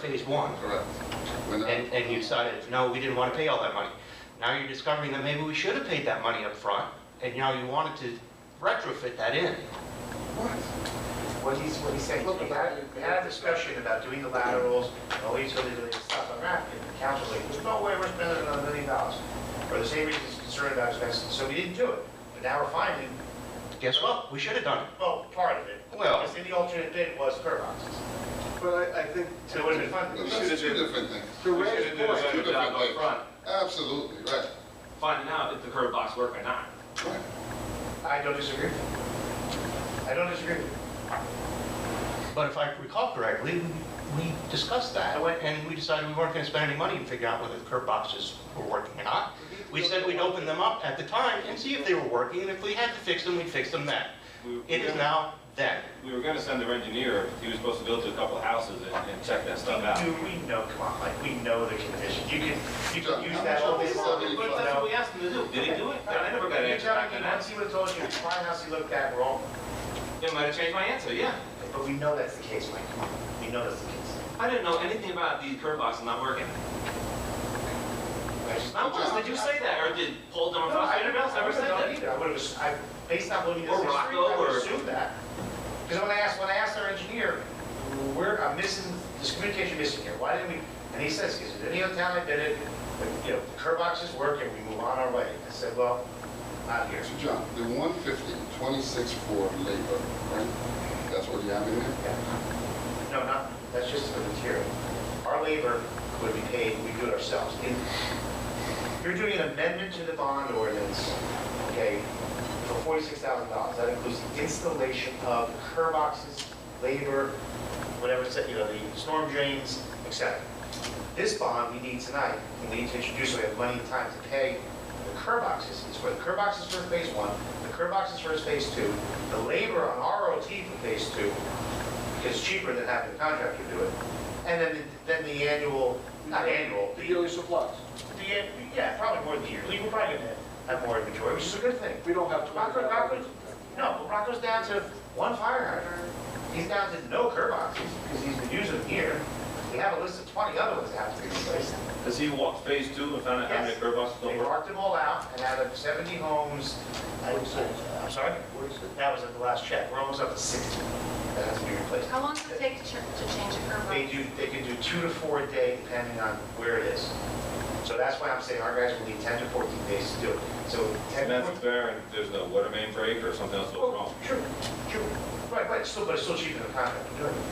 phase one. Correct. We're not- And, and you decided, no, we didn't want to pay all that money. Now you're discovering that maybe we should have paid that money up front, and now you wanted to retrofit that in. What he's, what he's saying. Look, we had, we had a discussion about doing the laterals, and all these other little stuff on that, and the council was like, there's no way we're spending another million dollars. For the same reasons concerned about expenses, so we didn't do it, but now we're finding, Guess what? We should have done it. well, part of it. Well- Because in the alternate bid was curb boxes, But I, I think. so it would have been Well, funded. That's two different things. To Ray's should've did a point, Two better different job up things. front, Absolutely, right. finding out if the curb box work or not. Right. I don't disagree. I don't disagree. But if I recall correctly, we- we discussed that, and we decided we weren't going to spend any money to figure out whether the curb boxes were working or not. We said we'd open them up at the time and see if they were working, and if we had to fix them, we'd fix them then. We- we It is were- now then. We were gonna send their engineer, he was supposed to go to a couple of houses and, and check that stuff out. Dude, we know, come on, like, we know the condition, you can, you John, can use how that much all are day these long. seventy you But that's know? what we asked him to do, did he do it? And I never got an You answer tell back me, on once that. he would have told you, why house he looked at, we're all, It might have changed my answer, yeah. but we know that's the case, Mike, come on, we know that's the case. I didn't know anything about the curb box not working. I just- Not once did you say that, or did Paul No, I Demorfosco, didn't anyone else ever say know that? either. I would have, I, based on looking at Or this history, I Rocco, would or- assume that. Because when I asked, when I asked our engineer, we're, I'm missing, this communication missing here, why didn't we? And he says, because in any other town I did it, but, you know, the curb boxes work and we move on our way. I said, well, not here. So John, the 150, 26 for labor, right? That's what you have in there? No, not, that's just for the material. Our labor would be paid, we do it ourselves. In- You're doing an amendment to the bond ordinance, okay, for forty-six thousand dollars. That includes the installation of curb boxes, labor, whatever, it's- you know, the storm drains, et cetera. This bond we need tonight, and we need to introduce, so we have money and time to pay the curb boxes. It's for the curb boxes for phase one, the curb boxes for phase two, the labor on ROT for phase two, because it's cheaper than having the contractor do it. And then, the- then the annual, not annual, the the, yearly supplies, the an- yeah, probably more than yearly, we're probably gonna have more inventory, which is a good thing. we don't have to. Rocco, Rocco's, no, but Rocco's down to one fire hydrant. He's down to no curb boxes, because he's been using them here. We have a list of twenty other ones that have to be replaced. Has he walked phase two and found out how many Yes. curb boxes They don't work? marked them all out, and out of seventy homes, I would say, I'm sorry? That was at the last check, we're almost up to sixty that has to be replaced. How long does it take to ch- to change a curb They line? do, they can do two to four a day depending on where it is. So that's why I'm saying our guys will need ten to fourteen days to do it. So ten to And that's fourteen. fair, and there's no water main break or something else goes wrong. Well, True, true. Right, but it's still, but it's still cheaper than a contractor doing it.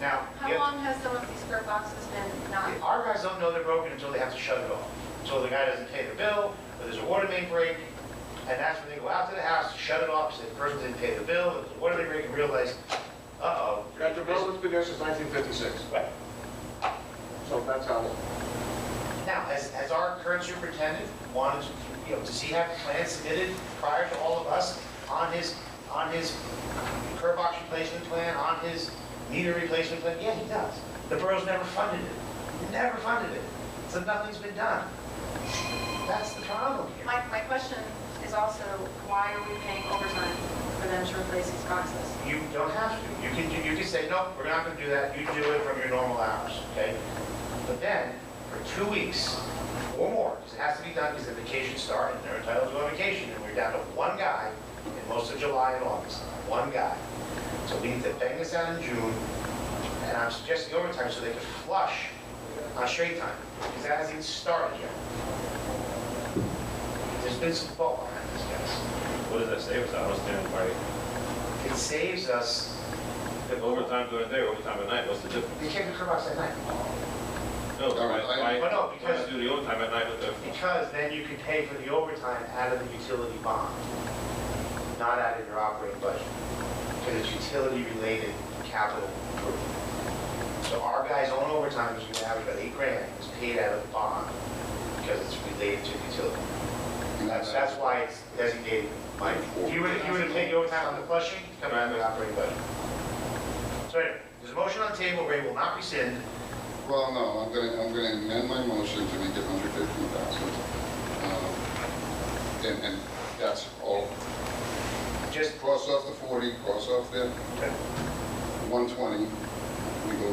Now, How yeah, long has some of these curb boxes been not? our guys don't know they're broken until they have to shut it off. Until the guy doesn't pay the bill, or there's a water main break, and that's when they go out to the house to shut it off, say the person didn't pay the bill, and there's a water main break, and realize, uh-oh. That development's been there since nineteen fifty-six, Right. so that's how. Now, has, has our current superintendent wanted, to, you know, does he have plans submitted prior to all of us on his, on his curb box replacement plan, on his meter replacement plan? Yeah, he does. The borough's never funded it, never funded it, so nothing's been done. That's the problem here. My, my question is also, why are we paying overtime for them to replace these boxes? You don't have to. You can, do- you can say, no, we're not gonna do that. You do it from your normal hours, okay? But then, for two weeks or more, because it has to be done because the vacation started, and they're entitled to a vacation, and we're down to one guy in most of July and August, one guy. So we need to bang this out in June, and I'm suggesting overtime so they can flush on straight time, because that hasn't even started yet. There's been some fault behind this, guys. What does that save us? I don't understand why. It saves us the Overtime during the day, overtime at night, what's the difference? They can't do curb box at night. No, No, why, I- why, Well, no, why because- not do the overtime at night with the Because then you can pay for the overtime out of the utility bond, not out of your operating budget. Because it's utility-related capital improvement. So our guy's own overtime, which we average about eight grand, is paid out of the bond because it's related to the utility. That's, that's why it's designated. Like If you were, if you were to pay the overtime on the flushing, it's coming out of the operating budget. So anyway, there's a motion on the table, Ray will not rescind. Well, no, I'm gonna, I'm gonna amend my motion to make it 115,000. Um, And, and that's all. Just Cross off the 40, cross off the Okay. 120,